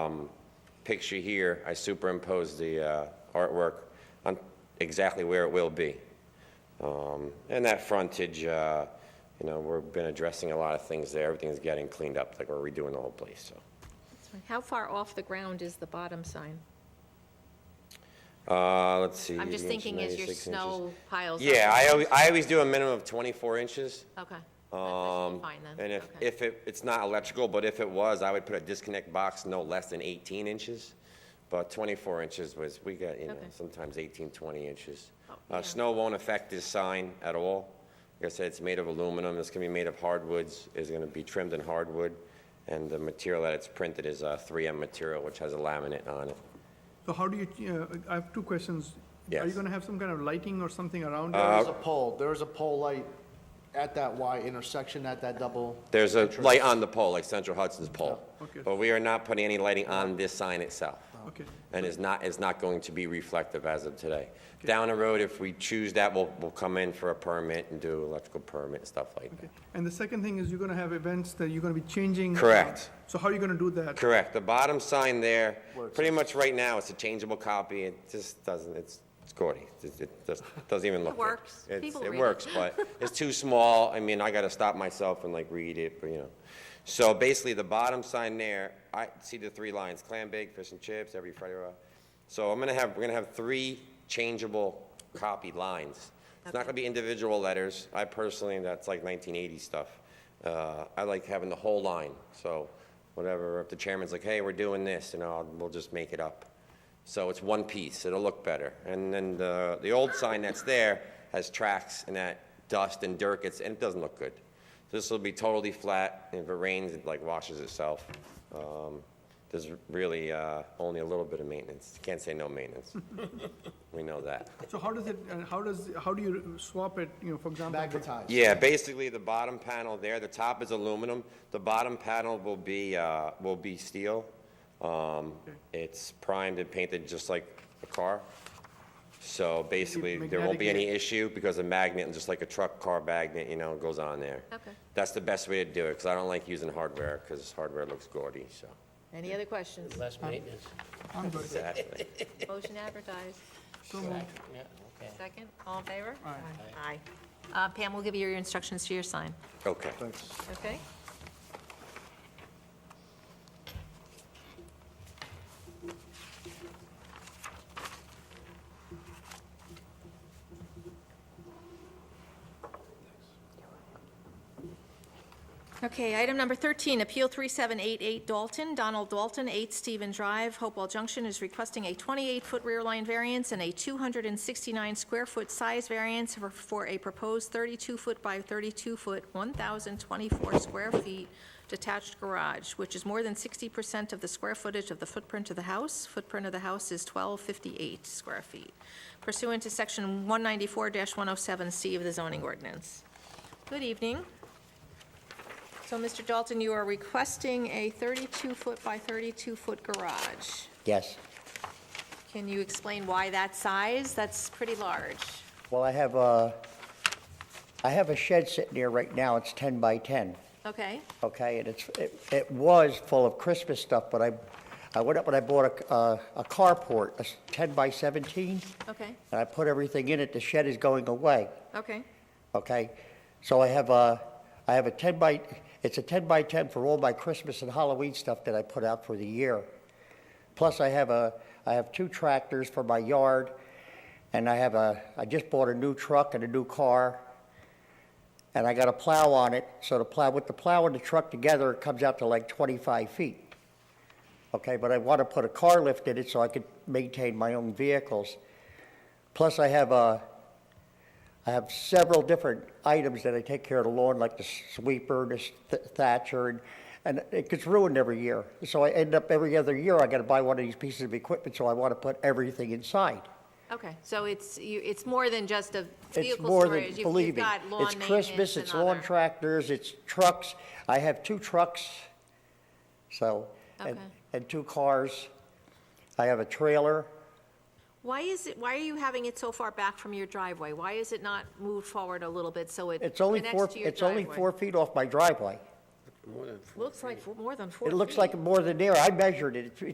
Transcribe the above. um, picture here, I superimpose the uh, artwork on exactly where it will be. Um, And that frontage, uh, you know, we've been addressing a lot of things there. Everything's getting cleaned up, like we're redoing the whole place, so. How far off the ground is the bottom sign? Uh, Let's see. I'm just 80 inches, thinking as 96 your inches. snow piles up. Yeah, I always, I always do a minimum of 24 inches. Okay. Um, Fine then. And if, Okay. if it, it's not electrical, but if it was, I would put a disconnect box no less than 18 inches. But 24 inches was, we got, you know, Okay. sometimes 18, 20 inches. Oh, Uh, yeah. Snow won't affect this sign at all. Like I said, it's made of aluminum, it's gonna be made of hardwoods, it's gonna be trimmed in hardwood, and the material that it's printed is uh, 3M material, which has a laminate on it. So how do you, uh, I have two questions. Are you Yes. Uh, going to have some kind of lighting or something around There it? is a pole, there is a pole light at that Y intersection, at that double. There's a light on the pole, like Central Hudson's pole. Okay. But we are not putting any lighting on this sign itself. Okay. and is not, is not going to be reflective as of today. Down the road, if we choose that, we'll, we'll come in for a permit and do electrical permit and stuff like that. Okay. And the second thing is you're going to have events that you're going to be changing. uh, Correct. So how are you going to do that? Correct, the bottom sign there, Where it pretty much right now, it's a changeable copy, it just doesn't, it's, it's gaudy. It it just doesn't even look good. works. It's- People It read it. works, but it's too small, I mean, I gotta stop myself and like read it, but you know. So basically, the bottom sign there, I see the three lines, clam bake, fish and chips, every Friday. uh, So I'm gonna have, we're gonna have three changeable copy lines. It's not gonna be individual letters, I personally, that's like 1980 stuff. Uh, I like having the whole line, so whatever, if the chairman's like, hey, we're doing this, you know, I'll- we'll just make it up. So it's one piece, it'll look better. And then the, the old sign that's there has tracks and that dust and dirt gets, and it doesn't look good. This will be totally flat, and if it rains, it like washes itself. Um, There's really uh, only a little bit of maintenance, can't say no maintenance. We know that. So how does it, and how does, how do you swap it, you know, for example? Magnetized. Yeah, basically, the bottom panel there, the top is aluminum, the bottom panel will be, uh, will be steel. Um, It's primed and painted just like a car. So basically, there won't be any issue because a magnet, and just like a truck car magnet, you know, goes on there. Okay. That's the best way to do it, because I don't like using hardware, because hardware looks gaudy, so. Any other questions? Less maintenance. I'm good. Exactly. Motion advertised. So moved. Yeah, okay. Second, all in favor? Aye. Uh, Pam, we'll give you your instructions to your sign, Okay. Thanks. okay? Okay, item number 13, Appeal 3788 Dalton, Donald Dalton, 8 Stephen Drive, Hopewell Junction, is requesting a 28-foot rear line variance and a 269-square-foot size variance for- for a proposed 32-foot by 32-foot, 1,024 square feet detached garage, which is more than 60% of the square footage of the footprint of the house. Footprint of the house is 1,258 square feet pursuant to Section 194-107C of the zoning ordinance. Good evening. So, Mr. Dalton, you are requesting a 32-foot by 32-foot garage. Yes. Can you explain why that size? That's pretty large. Well, I have a, I have a shed sitting here right now. It's 10 by 10, Okay, okay? And it's, it it was full of Christmas stuff, but I, I went up and I bought a, a- a carport, a s- 10 by 17, okay, and I put everything in it. The shed is going away, okay, okay? So I have a, I have a 10 by, it's a 10 by 10 for all my Christmas and Halloween stuff that I put out for the year. Plus, I have a, I have two tractors for my yard, and I have a, I just bought a new truck and a new car, and I got a plow on it, so the plow, with the plow and the truck together, it comes out to like 25 feet. Okay, but I want to put a car lift in it so I could maintain my own vehicles. Plus, I have a, I have several different items that I take care of the lawn, like the sweeper, the th- thatcher, and, and it gets ruined every year. So I end up every other year, I gotta buy one of these pieces of equipment, so I wanna put everything inside. okay. So it's, you, it's more than just a It's vehicle more than, storage. You've- you've believe me, got lawn it's Christmas, maintenance it's and lawn other- tractors, it's trucks. I have two trucks, so, and, Okay. and two cars. I have a trailer. Why is it, why are you having it so far back from your driveway? Why is it not moved forward a little bit so it It's only connects to your four, driveway? it's only four feet off my driveway. Looks like more than four It looks feet. like more than there. I measured it. It's-